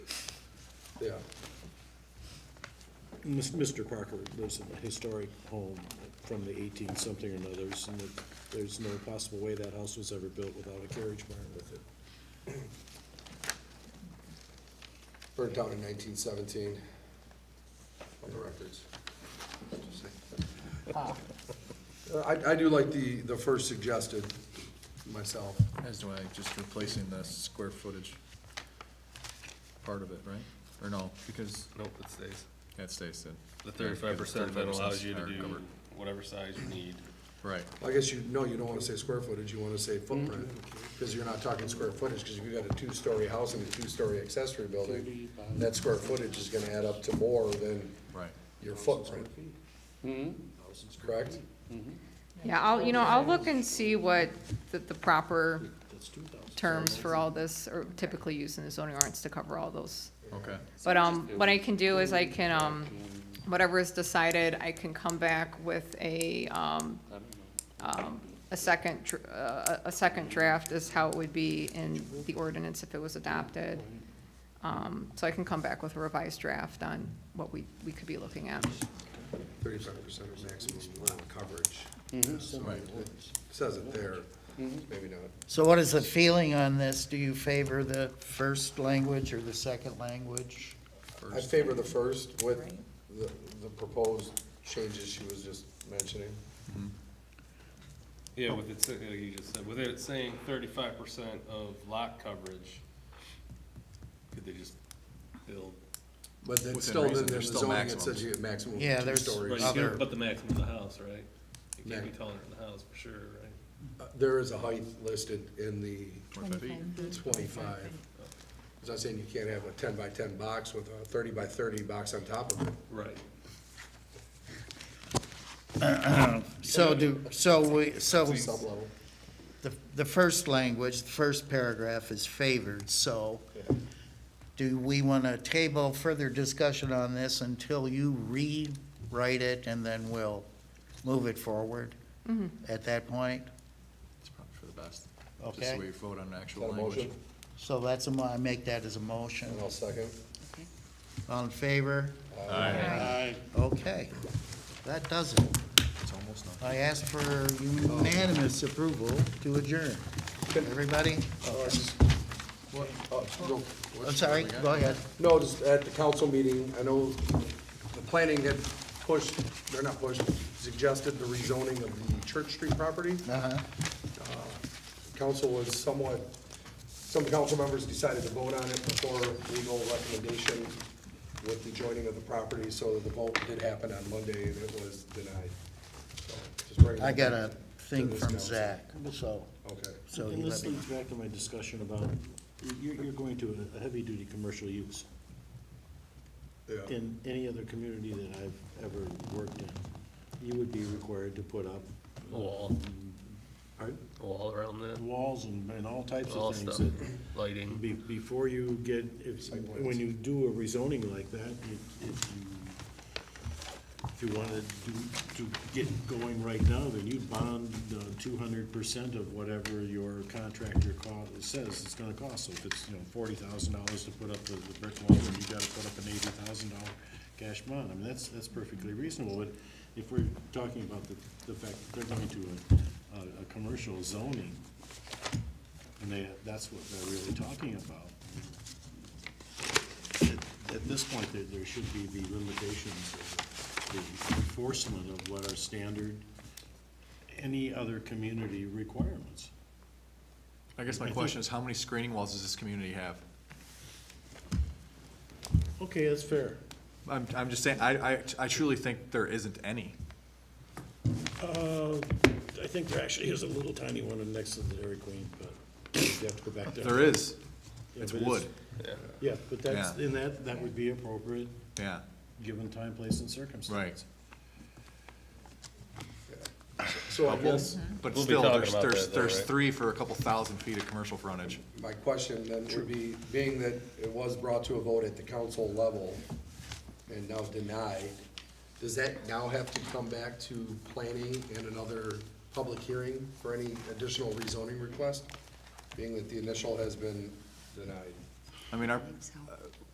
Yeah. Mis- Mr. Parker lives in a historic home from the eighteen-something or others, and that there's no possible way that house was ever built without a carriage barn with it. Burnt down in nineteen seventeen, on the records. Just saying. Uh, I, I do like the, the first suggested myself. As do I, just replacing the square footage part of it, right? Or no, because Nope, it stays. that stays then. The thirty-five percent then 35% allows you to are do covered. whatever size you need. Right, I guess you, no, you don't wanna say square footage, you wanna say footprint, cause you're not talking square footage, cause if you got a two-story house and a two-story accessory building, that square footage is gonna add up to more than right. your footprint. Correct? Yeah, I'll, you know, I'll look and see what the, the proper terms for all this are typically used in the zoning ordinance to cover all those. Okay, But, um, what I can do is I can, um, whatever is decided, I can come back with a, um, um, a second, dr- uh, a second draft is how it would be in the ordinance if it was adopted. Um, so I can come back with a revised draft on what we, we could be looking at. Thirty-five percent of maximum lot coverage, right. says it there, maybe not. So what is the feeling on this? Do you favor the first language or the second language? I favor the first with the, the proposed changes she was just mentioning. Yeah, with it, sa- like you just said, with it saying thirty-five percent of lot coverage, could they just build? But then Within still, then reason, the there's still zoning, it maximum. says you get maximum Yeah, two there's- Right, stories. you Other- can put the maximum in the house, right? You can't be Yeah. taller than the house for sure, right? Uh, There is a height listed in the Or if it- twenty-five. Is that saying you can't have a ten by ten box with a thirty by thirty box on top of it? Right. So do, so we, so Sub-level. the, the first language, the first paragraph is favored, so do we want to table further discussion on this until you rewrite it and then we'll move it forward at that point? It's probably for the best. Just Okay. so we vote on Got actual a language. motion? So that's a mo, I make that as a motion. And I'll second. All in favor? Okay, that does it. It's almost done. I ask for unanimous approval to adjourn. Everybody? Uh, just- Uh, no. I'm sorry, go ahead. No, just at the council meeting, I know the planning had pushed, they're not pushed, suggested the rezoning of the Church Street property. Uh, Uh-huh. Council was somewhat, some council members decided to vote on it before legal recommendation with the joining of the property, so the vote did happen on Monday and it was denied. So, just bringing I that got a back to thing this from council. Zach, so, Okay. so And you this let me. leads back to my discussion about, you're, you're going to a heavy-duty commercial use Yeah. in any other community that I've ever worked in. You would be required to put up Wall, pardon, wall around that, walls and, and all types All of things stuff. that lighting. Be, before you get, if, when you do a rezoning like that, you- if you, if you wanted to, to get going right now, then you'd bond two hundred percent of whatever your contractor co- says it's gonna cost. So if it's, you know, forty thousand dollars to put up the, the brick wall, then you gotta put up an eighty thousand dollar cash bond. I mean, that's, that's perfectly reasonable, but if we're talking about the, the fact that they're going to a, a, a commercial zoning, and they, that's what they're really talking about. At- At this point, there, there should be the limitations, of the enforcement of what are standard, any other community requirements. I guess my question is, how many screening walls does this community have? Okay, that's fair. I'm, I'm just saying, I, I, I truly think there isn't any. Uh, I think there actually is a little tiny one next to the Dairy Queen, but you have to go back there. There is. Yeah, It's but wood, Yeah, but that's, Yeah. and that, that would be appropriate, yeah, given time, place, and circumstance. right. So I guess But We'll be still, talking there's, about there's, that, though, there's right? three for a couple thousand feet of commercial frontage. my question then would be, being that it was brought to a vote at the council level and now denied, does that now have to come back to planning and another public hearing for any additional rezoning request? Being that the initial has been denied. I mean, our,